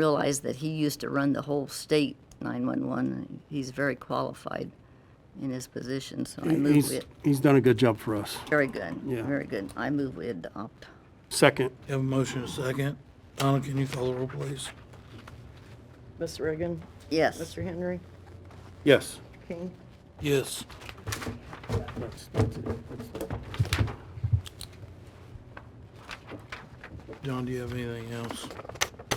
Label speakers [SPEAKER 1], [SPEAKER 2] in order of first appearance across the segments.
[SPEAKER 1] realize that he used to run the whole state 911. He's very qualified in his position, so I move
[SPEAKER 2] He's,
[SPEAKER 1] it.
[SPEAKER 2] he's done a good job for us.
[SPEAKER 1] Very good,
[SPEAKER 2] Yeah.
[SPEAKER 1] very good. I move we adopt.
[SPEAKER 2] Second,
[SPEAKER 3] Have a motion and a second. Donna, can you call the roll, please?
[SPEAKER 4] Ms. Reagan,
[SPEAKER 1] Yes.
[SPEAKER 4] Mr. Henry,
[SPEAKER 2] yes.
[SPEAKER 4] King.
[SPEAKER 3] Yes. John, do you have anything else?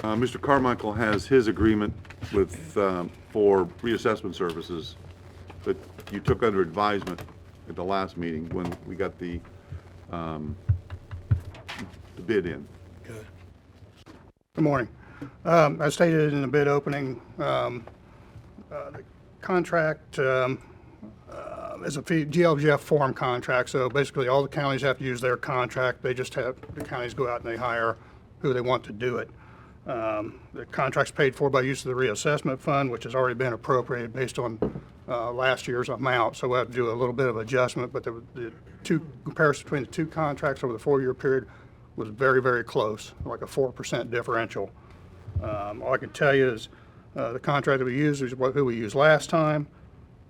[SPEAKER 5] Uh, Mr. Carmichael has his agreement with, um, for reassessment services that you took under advisement at the last meeting when we got the, um, the bid in.
[SPEAKER 3] Okay.
[SPEAKER 6] Good morning. Um, As stated in the bid opening, um, uh, the contract um, uh, is a fee- GLGF form contract, so basically all the counties have to use their contract. They just have, the counties go out and they hire who they want to do it. Um, The contract's paid for by use of the reassessment fund, which has already been appropriated based on uh, last year's amount, so we'll have to do a little bit of adjustment, but the the two, comparison between the two contracts over the four-year period was very, very close, like a 4% differential. Um, All I can tell you is, uh, the contract that we used is what, who we used last time.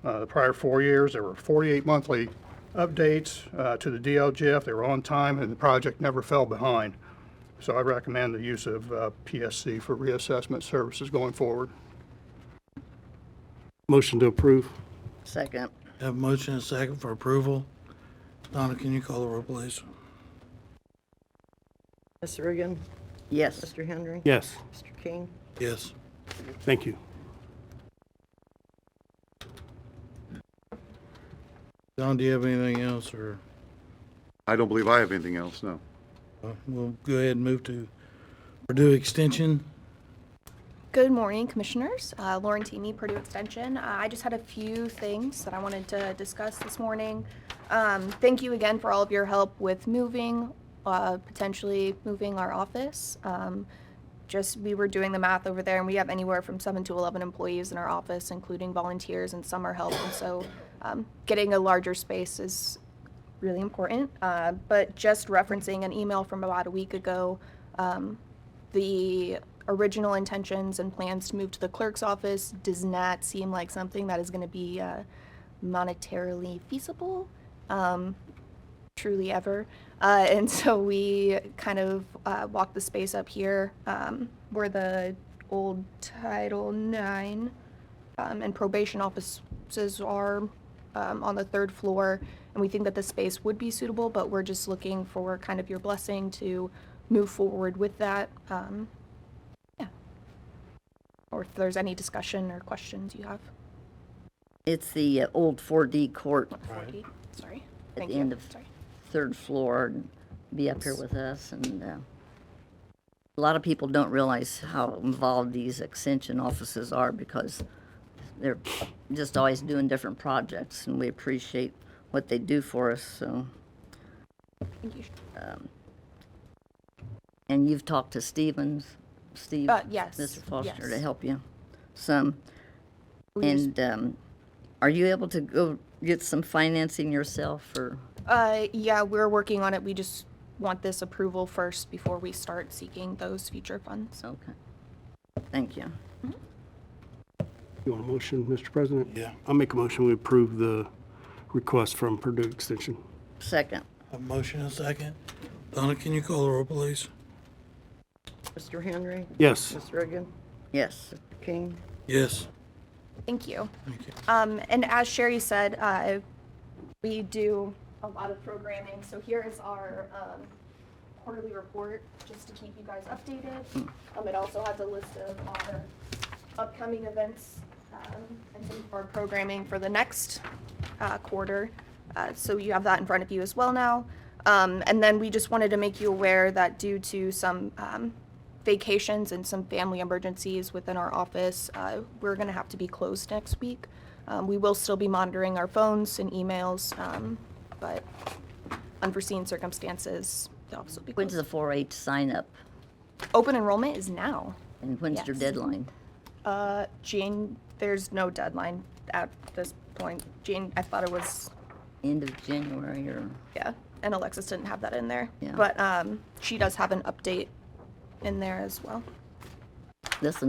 [SPEAKER 6] Uh, The prior four years, there were 48 monthly updates uh, to the DLGF. They were on time, and the project never fell behind. So I recommend the use of uh, PSC for reassessment services going forward.
[SPEAKER 2] Motion to approve,
[SPEAKER 1] Second.
[SPEAKER 3] Have a motion and a second for approval. Donna, can you call the roll, please?
[SPEAKER 4] Ms. Reagan,
[SPEAKER 1] Yes.
[SPEAKER 4] Mr. Henry,
[SPEAKER 2] yes.
[SPEAKER 4] Mr. King.
[SPEAKER 3] Yes.
[SPEAKER 2] Thank you.
[SPEAKER 3] John, do you have anything else, or
[SPEAKER 5] I don't believe I have anything else, no.
[SPEAKER 3] uh, we'll go ahead and move to Purdue Extension?
[SPEAKER 7] Good morning, Commissioners. Uh, Lauren Teamy, Purdue Extension. Uh, I just had a few things that I wanted to discuss this morning. Um, Thank you again for all of your help with moving, uh, potentially moving our office. Um, Just, we were doing the math over there, and we have anywhere from seven to 11 employees in our office, including volunteers and summer help. And so um, getting a larger space is really important. Uh, But just referencing an email from about a week ago the original intentions and plans to move to the clerk's office does not seem like something that is going to be uh, monetarily feasible, um, truly ever. Uh, and so we kind of uh, walked the space up here um, where the old Title IX um, and probation offices are um, on the third floor, and we think that the space would be suitable, but we're just looking for kind of your blessing to move forward with that. Um, yeah. Or if there's any discussion or questions you have.
[SPEAKER 1] It's the uh, old 4D court,
[SPEAKER 7] 4D. Sorry.
[SPEAKER 1] At
[SPEAKER 7] Thank
[SPEAKER 1] the
[SPEAKER 7] you.
[SPEAKER 1] end of-
[SPEAKER 7] Sorry.
[SPEAKER 1] third floor, and be up here with us. And uh, a lot of people don't realize how involved these extension offices are because they're just always doing different projects, and we appreciate what they do for us, so.
[SPEAKER 7] Thank you.
[SPEAKER 1] And you've talked to Stevens, Steve?
[SPEAKER 7] Uh, yes,
[SPEAKER 1] Mr. Foster, to
[SPEAKER 7] yes.
[SPEAKER 1] help you some.
[SPEAKER 7] We just-
[SPEAKER 1] And um, are you able to go get some financing yourself, or,
[SPEAKER 7] Uh, yeah, we're working on it. We just want this approval first before we start seeking those future funds.
[SPEAKER 1] okay. Thank you.
[SPEAKER 2] You want a motion, Mr. President?
[SPEAKER 3] Yeah.
[SPEAKER 2] I'll make a motion, we approve the request from Purdue Extension.
[SPEAKER 1] Second,
[SPEAKER 3] Have a motion and a second. Donna, can you call the roll, please?
[SPEAKER 4] Mr. Henry,
[SPEAKER 2] Yes,
[SPEAKER 4] Ms. Reagan,
[SPEAKER 1] yes,
[SPEAKER 4] King.
[SPEAKER 3] Yes.
[SPEAKER 7] Thank you.
[SPEAKER 3] Thank you.
[SPEAKER 7] Um, and as Sherry said, uh, we do a lot of programming. So here is our um, quarterly report, just to keep you guys updated. Um, it also has a list of our upcoming events um, and some of our programming for the next uh, quarter. Uh, so you have that in front of you as well now. Um, and then we just wanted to make you aware that due to some um, vacations and some family emergencies within our office, uh, we're going to have to be closed next week. Um, we will still be monitoring our phones and emails, um, but unforeseen circumstances, the office will be
[SPEAKER 1] when's
[SPEAKER 7] closed.
[SPEAKER 1] the 4-H sign-up,
[SPEAKER 7] Open enrollment is now.
[SPEAKER 1] and when's your
[SPEAKER 7] Yes.
[SPEAKER 1] deadline?
[SPEAKER 7] Uh, Jane, there's no deadline at this point. Jane, I thought it was,
[SPEAKER 1] End of January, or,
[SPEAKER 7] yeah, and Alexis didn't have that in there.
[SPEAKER 1] Yeah.
[SPEAKER 7] But, um, she does have an update in there as well.
[SPEAKER 1] this and